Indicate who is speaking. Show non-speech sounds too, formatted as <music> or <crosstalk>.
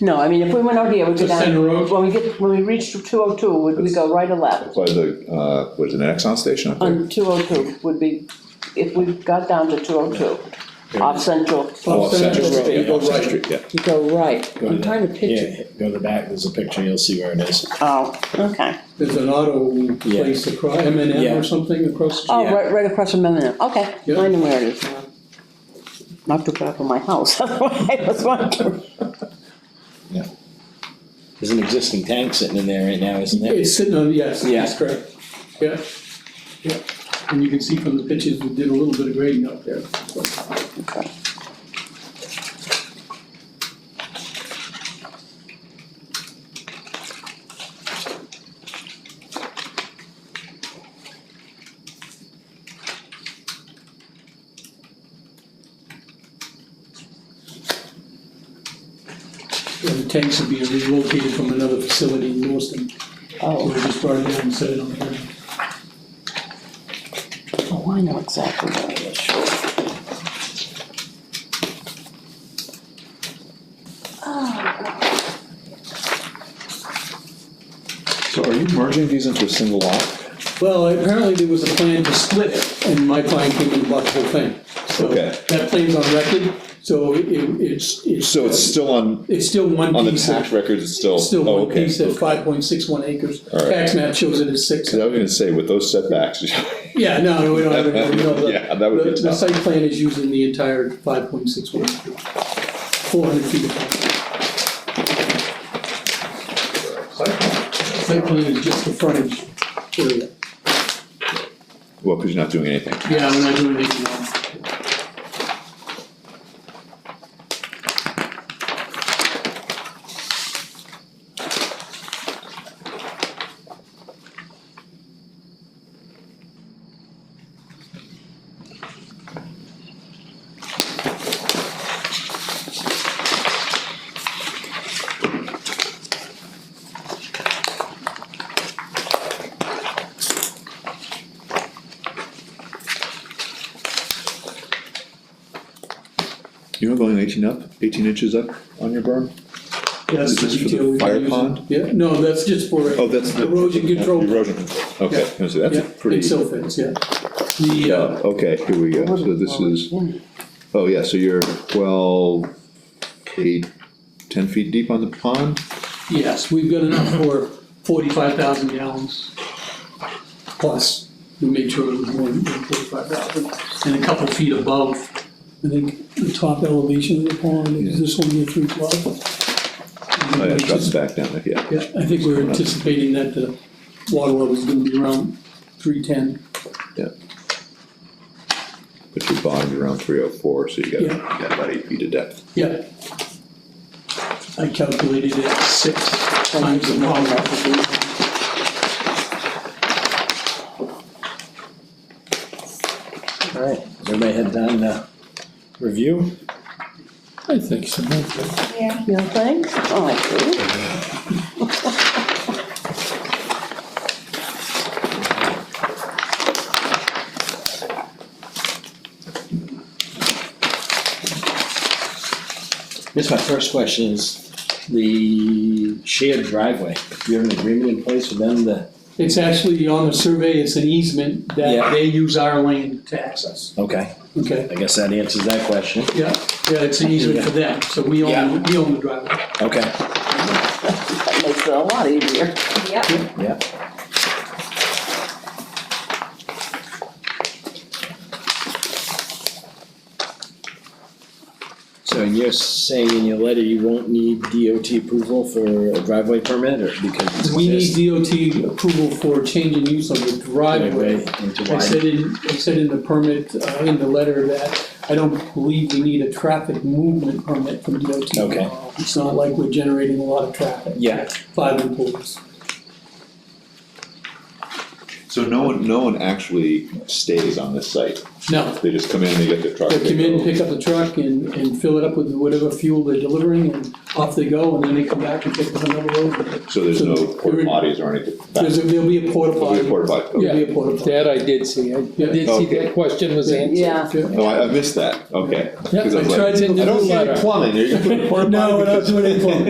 Speaker 1: No, I mean, if we went out here, we'd go
Speaker 2: The center
Speaker 1: down,
Speaker 2: road?
Speaker 1: when we get, when we reach two oh two, would we go right or left?
Speaker 3: By the, uh, was it an Exxon station up
Speaker 2: Um,
Speaker 3: there?
Speaker 1: On two oh two would be, if we got down to two oh two, off Central,
Speaker 3: Oh, off Central Road,
Speaker 1: Street.
Speaker 3: yeah, off Central Street, yeah.
Speaker 1: you go right,
Speaker 3: Go
Speaker 1: I'm
Speaker 3: to
Speaker 1: trying to picture.
Speaker 4: Yeah, go to the back, there's a picture, you'll see where it is.
Speaker 1: Oh, okay,
Speaker 2: There's an auto place across, M and M
Speaker 4: Yeah.
Speaker 2: or something across. the
Speaker 1: oh,
Speaker 4: Yeah.
Speaker 1: right, right across from Eminem, okay,
Speaker 2: Yeah.
Speaker 1: I know where it is now. Not too far from my house, <laughs> I was wondering.
Speaker 4: There's an existing tank sitting in there right now, isn't there?
Speaker 2: It's sitting on, yes, that's
Speaker 4: Yeah.
Speaker 2: correct, yeah, yeah, and you can see from the pictures, we did a little bit of grading up there.
Speaker 1: Okay.
Speaker 2: And the tanks would be relocated from another facility in Lewiston, so we
Speaker 1: Oh,
Speaker 2: just brought it in and set it on here.
Speaker 1: oh, I know exactly where it is, sure.
Speaker 3: So are you merging these into a single lot?
Speaker 2: Well, apparently there was a plan to split it, and my plan came and blocked the whole thing. So
Speaker 3: Okay.
Speaker 2: That plan's on record, so it, it's, it's.
Speaker 3: So it's still on,
Speaker 2: It's still one
Speaker 3: on the
Speaker 2: piece
Speaker 3: tax
Speaker 2: of,
Speaker 3: records, it's still,
Speaker 2: still
Speaker 3: oh,
Speaker 2: one
Speaker 3: okay.
Speaker 2: piece of
Speaker 3: So
Speaker 2: five point six one acres.
Speaker 3: All right.
Speaker 2: Tax map shows it as six.
Speaker 3: I was gonna say, with those setbacks, <laughs>
Speaker 2: Yeah, no, no, we don't have it, no, the.
Speaker 3: Yeah, that would be
Speaker 2: the- The
Speaker 3: tough.
Speaker 2: site plan is using the entire five point six one acres, four hundred feet. apart. Site plan is just the frontage area.
Speaker 3: well, because you're not doing anything.
Speaker 2: Yeah, we're not doing anything wrong.
Speaker 3: You're not going eighteen up, eighteen inches up on your berm?
Speaker 2: That's
Speaker 3: Is this
Speaker 2: the
Speaker 3: for the
Speaker 2: detail we
Speaker 3: fire
Speaker 2: gotta use.
Speaker 3: pond?
Speaker 2: Yeah, no, that's just for.
Speaker 3: Oh, that's the.
Speaker 2: Erosion control.
Speaker 3: Erosion control, okay, I was gonna say, that's
Speaker 2: Yeah,
Speaker 3: a pretty.
Speaker 2: And silt fence, yeah. The, uh,
Speaker 3: Okay, here we go, so this is, oh yeah, so you're twelve, eight, ten feet deep on the pond?
Speaker 2: yes, we've got enough for forty-five thousand gallons. Plus, we made sure it was more than forty-five thousand, and a couple feet above, I think, the top elevation of the pond is this one here, three twelve.
Speaker 3: Oh, yeah, it drops back down there, yeah.
Speaker 2: Yeah, I think we're anticipating that the water level is gonna be around three-ten.
Speaker 3: Yeah. But your bottom's around three oh four, so you got, you
Speaker 2: Yeah.
Speaker 3: got about eight feet of depth.
Speaker 2: Yeah. I calculated it six times the model.
Speaker 4: Alright, everybody had done, uh, review?
Speaker 2: I think so.
Speaker 5: Yeah.
Speaker 1: No thanks? Oh, I do.
Speaker 4: Guess my first question is the shared driveway. Do you have an agreement in place with them to?
Speaker 2: It's actually on the survey, it's an easement that
Speaker 4: Yeah.
Speaker 2: they use our lane to access,
Speaker 4: Okay,
Speaker 2: okay?
Speaker 4: I guess that answers that question.
Speaker 2: Yeah, yeah, it's an easement for them, so we own, we own the driveway.
Speaker 4: Okay.
Speaker 1: That makes it a lot easier.
Speaker 5: Yep.
Speaker 4: Yeah. So and you're saying in your letter you won't need DOT approval for a driveway permit or because it's
Speaker 2: We
Speaker 4: exist-
Speaker 2: need DOT approval for change in use of the
Speaker 4: driveway
Speaker 2: driveway.
Speaker 4: into
Speaker 2: I
Speaker 4: wide?
Speaker 2: said in, I said in the permit, uh, in the letter that I don't believe we need a traffic movement permit from DOT.
Speaker 4: Okay.
Speaker 2: It's not like we're generating a lot of traffic.
Speaker 4: Yeah.
Speaker 2: Five employees.
Speaker 3: So no one, no one actually stays on this site,
Speaker 2: No,
Speaker 3: they just come in, they get their truck.
Speaker 2: they come in,
Speaker 3: go.
Speaker 2: pick up the truck and, and fill it up with whatever fuel they're delivering and off they go and then they come back and pick up another load.
Speaker 3: So there's no
Speaker 2: so
Speaker 3: porta
Speaker 2: there-
Speaker 3: potties or anything?
Speaker 2: There's, a- there'll be a porta
Speaker 3: There'll be a
Speaker 2: potty.
Speaker 3: porta potty, okay.
Speaker 2: There'll be a porta potty.
Speaker 6: That I did see, I did see
Speaker 3: Okay.
Speaker 6: that question was answered.
Speaker 1: Yeah.
Speaker 3: Oh, I, I missed that,
Speaker 2: Yeah,
Speaker 3: okay. 'Cause I was
Speaker 2: I
Speaker 3: like,
Speaker 2: tried to
Speaker 3: I don't
Speaker 2: do
Speaker 3: see any
Speaker 6: that.
Speaker 2: <laughs>
Speaker 3: plumbing, are you gonna put a porta potty?
Speaker 2: No, we're not doing it for-